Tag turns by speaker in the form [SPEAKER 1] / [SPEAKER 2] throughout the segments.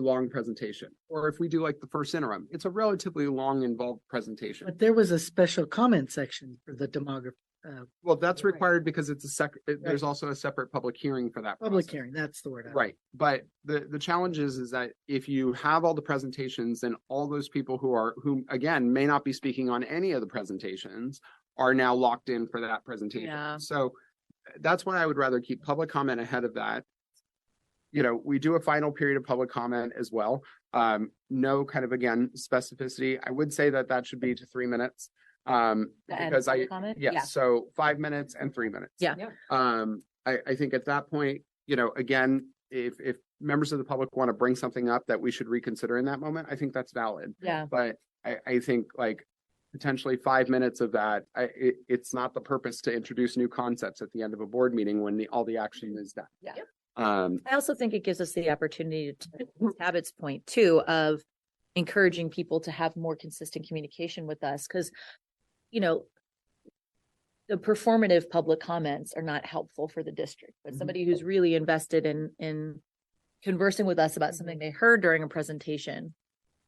[SPEAKER 1] long presentation. Or if we do like the first interim, it's a relatively long involved presentation.
[SPEAKER 2] But there was a special comment section for the demographic, uh,
[SPEAKER 1] Well, that's
[SPEAKER 2] Right.
[SPEAKER 1] required because it's a sec, it- there's also a separate public hearing for that.
[SPEAKER 2] public
[SPEAKER 1] process.
[SPEAKER 2] hearing, that's the word. I-
[SPEAKER 1] Right, but the, the challenge is, is that if you have all the presentations and all those people who are, who again, may not be speaking on any of the presentations are now locked in for that
[SPEAKER 3] Yeah.
[SPEAKER 1] presentation. So uh, that's why I would rather keep public comment ahead of that. You know, we do a final period of public comment as well. Um, no kind of, again, specificity. I would say that that should be to three minutes. Um,
[SPEAKER 3] The end
[SPEAKER 1] because
[SPEAKER 3] of the
[SPEAKER 1] I,
[SPEAKER 3] comment? Yeah.
[SPEAKER 1] Yes, so five minutes and three minutes.
[SPEAKER 3] Yeah.
[SPEAKER 4] Yeah.
[SPEAKER 1] Um, I, I think at that point, you know, again, if, if members of the public want to bring something up that we should reconsider in that moment, I think that's valid.
[SPEAKER 3] Yeah,
[SPEAKER 1] But I, I think like potentially five minutes of that, I, it, it's not the purpose to introduce new concepts at the end of a board meeting when the, all the action is done.
[SPEAKER 3] Yeah. Yep.
[SPEAKER 1] Um,
[SPEAKER 3] I also think it gives us the opportunity to Abbott's point too of encouraging people to have more consistent communication with us because, you know, the performative public comments are not helpful for the district, but
[SPEAKER 1] Mhm.
[SPEAKER 3] somebody who's really invested in in conversing with us about something they heard during a presentation.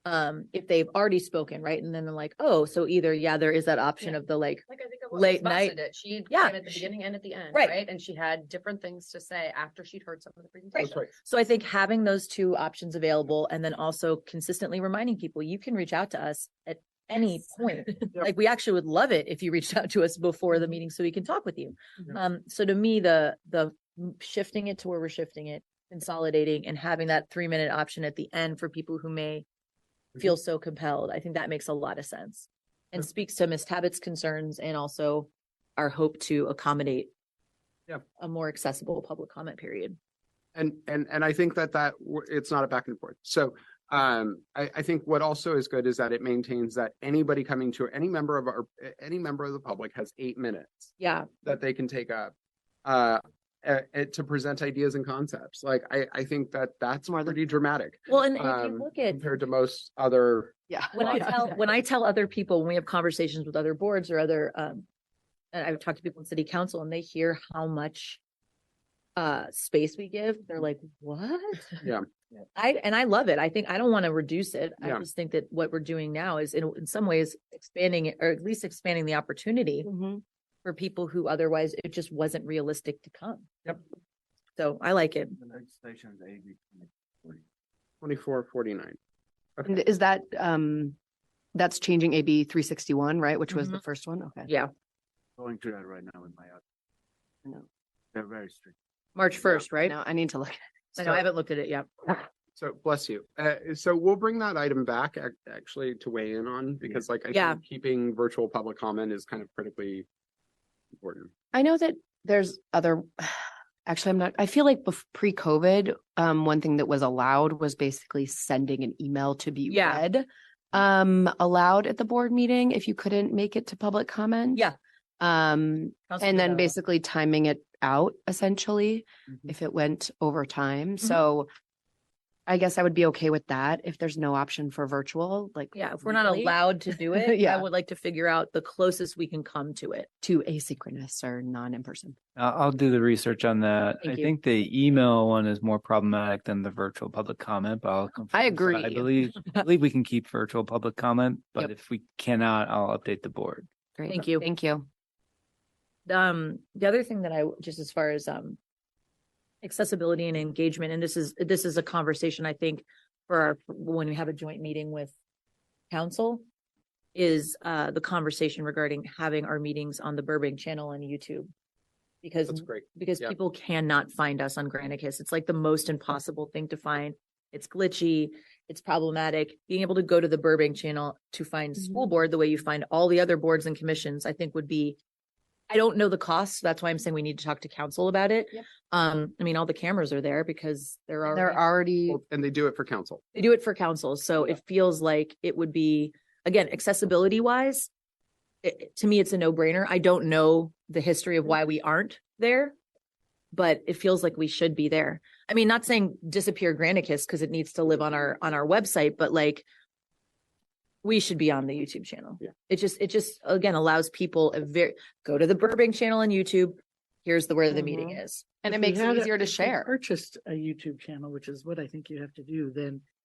[SPEAKER 3] Um, if they've already spoken, right? And then they're like, oh, so either, yeah, there is that option
[SPEAKER 4] Yeah.
[SPEAKER 3] of the like,
[SPEAKER 4] Like I think of
[SPEAKER 3] Late
[SPEAKER 4] late
[SPEAKER 3] night-
[SPEAKER 4] night. It. She came
[SPEAKER 3] Yeah,
[SPEAKER 4] at the
[SPEAKER 3] she-
[SPEAKER 4] beginning and at the end,
[SPEAKER 3] Right.
[SPEAKER 4] right? And she had different things to say after she'd heard some of the
[SPEAKER 1] that's
[SPEAKER 4] presentation.
[SPEAKER 1] right.
[SPEAKER 3] So I think having those two options available and then also consistently reminding people, you can reach out to us at any
[SPEAKER 4] Yes.
[SPEAKER 3] point. Like, we actually would love it if you reached out to us before the meeting so we can talk with you.
[SPEAKER 1] Mhm.
[SPEAKER 3] Um, so to me, the, the shifting it to where we're shifting it, consolidating and having that three minute option at the end for people who may feel so compelled, I think that makes a lot of sense and speaks to Ms. Tabbitt's concerns and also our hope to accommodate
[SPEAKER 1] Yeah.
[SPEAKER 3] a more accessible public comment period.
[SPEAKER 1] And, and, and I think that that, w- it's not a back and forth. So um, I, I think what also is good is that it maintains that anybody coming to, any member of our, any member of the public has eight minutes
[SPEAKER 3] Yeah.
[SPEAKER 1] that they can take up uh, a- a- to present ideas and concepts. Like, I, I think that that's pretty dramatic
[SPEAKER 3] Well, and if
[SPEAKER 1] um,
[SPEAKER 3] you look at
[SPEAKER 1] compared to most other,
[SPEAKER 4] Yeah.
[SPEAKER 3] when I
[SPEAKER 1] Yeah.
[SPEAKER 3] tell when I tell other people when we have conversations with other boards or other um and I've talked to people in city council and they hear how much uh space we give, they're like, What?
[SPEAKER 1] Yeah.
[SPEAKER 4] Yeah.
[SPEAKER 3] I and I love it. I think I don't want to reduce it. I
[SPEAKER 1] Yeah.
[SPEAKER 3] just think that what we're doing now is in in some ways expanding it or at least expanding the opportunity for people who otherwise it just wasn't realistic to come.
[SPEAKER 1] Yep.
[SPEAKER 3] So I like it.
[SPEAKER 5] The legislation is AB twenty forty.
[SPEAKER 1] 24, 49.
[SPEAKER 4] And is that, um, that's changing AB three sixty-one, right? Which
[SPEAKER 3] was the
[SPEAKER 4] first one? Okay.
[SPEAKER 3] Mm-hmm. Yeah.
[SPEAKER 5] Going to that right now in my. office.
[SPEAKER 4] No.
[SPEAKER 5] They're very strict.
[SPEAKER 3] March first, right?
[SPEAKER 4] Now I need to look.
[SPEAKER 3] I know I haven't looked at it yet.
[SPEAKER 1] So bless you. Uh, so we'll bring that item back ac- actually to weigh in on because like I
[SPEAKER 3] Yeah.
[SPEAKER 1] think keeping virtual public comment is kind of critically important.
[SPEAKER 4] I know that there's other, actually, I'm not, I feel like bef- pre-COVID, um, one thing that was allowed was basically sending an email to be
[SPEAKER 3] Yeah.
[SPEAKER 4] read. Um, allowed at the board meeting if you couldn't make it to public comment.
[SPEAKER 3] Yeah.
[SPEAKER 4] Um,
[SPEAKER 3] Council
[SPEAKER 4] and then
[SPEAKER 3] Mandela.
[SPEAKER 4] basically timing it out essentially,
[SPEAKER 2] Mm-hmm.
[SPEAKER 1] Mhm.
[SPEAKER 4] if it went over time.
[SPEAKER 3] Mm-hmm.
[SPEAKER 4] So I guess I would be okay with that if there's no option for virtual, like.
[SPEAKER 3] Yeah, if we're not
[SPEAKER 4] weekly
[SPEAKER 3] allowed to do it, I
[SPEAKER 4] Yeah.
[SPEAKER 3] would like to figure out the closest we can come to it.
[SPEAKER 4] To asynchronous or non-in-person.
[SPEAKER 6] I'll, I'll do the research on that.
[SPEAKER 4] Thank
[SPEAKER 6] I
[SPEAKER 4] you.
[SPEAKER 6] think the email one is more problematic than the virtual public comment, but I'll. confirm. So
[SPEAKER 4] agree.
[SPEAKER 6] I believe, I believe we can keep virtual public comment, but
[SPEAKER 4] Yep.
[SPEAKER 6] if we cannot, I'll update the board.
[SPEAKER 4] Great.
[SPEAKER 3] Thank you.
[SPEAKER 4] Thank you.
[SPEAKER 3] Um, the other thing that I, just as far as, um, accessibility and engagement, and this is, this is a conversation I think for our, when we have a joint meeting with council, is, uh, the conversation regarding having our meetings on the Burbank channel and YouTube. Because
[SPEAKER 1] That's great.
[SPEAKER 3] because
[SPEAKER 1] Yeah.
[SPEAKER 3] people cannot find us on Granicus. It's like the most impossible thing to find. It's glitchy, it's problematic. Being able to go to the Burbank channel to find school board the way you find all the other boards and commissions, I think would be I don't know the cost. That's why I'm saying we need to talk to council about it.
[SPEAKER 4] Yep.
[SPEAKER 3] Um, I mean, all the cameras are there because there are
[SPEAKER 4] They're already.
[SPEAKER 1] Well, And they do it for council.
[SPEAKER 3] they do it for council, so it feels like it would be, again, accessibility wise. It, it- to me, it's a no brainer. I don't know the history
[SPEAKER 2] Mm-hmm.
[SPEAKER 3] of why we aren't there. But it feels like we should be there. I mean, not saying disappear Granicus because it needs to live on our, on our website, but like. We should be on the YouTube channel.
[SPEAKER 1] Yeah.
[SPEAKER 3] It just, it just, again, allows people a very, go to the Burbank channel on YouTube. Here's the, where the meeting is.
[SPEAKER 4] And
[SPEAKER 2] Mm-hmm. If
[SPEAKER 4] it
[SPEAKER 2] you
[SPEAKER 4] makes
[SPEAKER 2] had
[SPEAKER 4] it
[SPEAKER 2] a-
[SPEAKER 4] easier to
[SPEAKER 2] if you
[SPEAKER 4] share.
[SPEAKER 2] Purchased a YouTube channel, which is what I think you have to do, then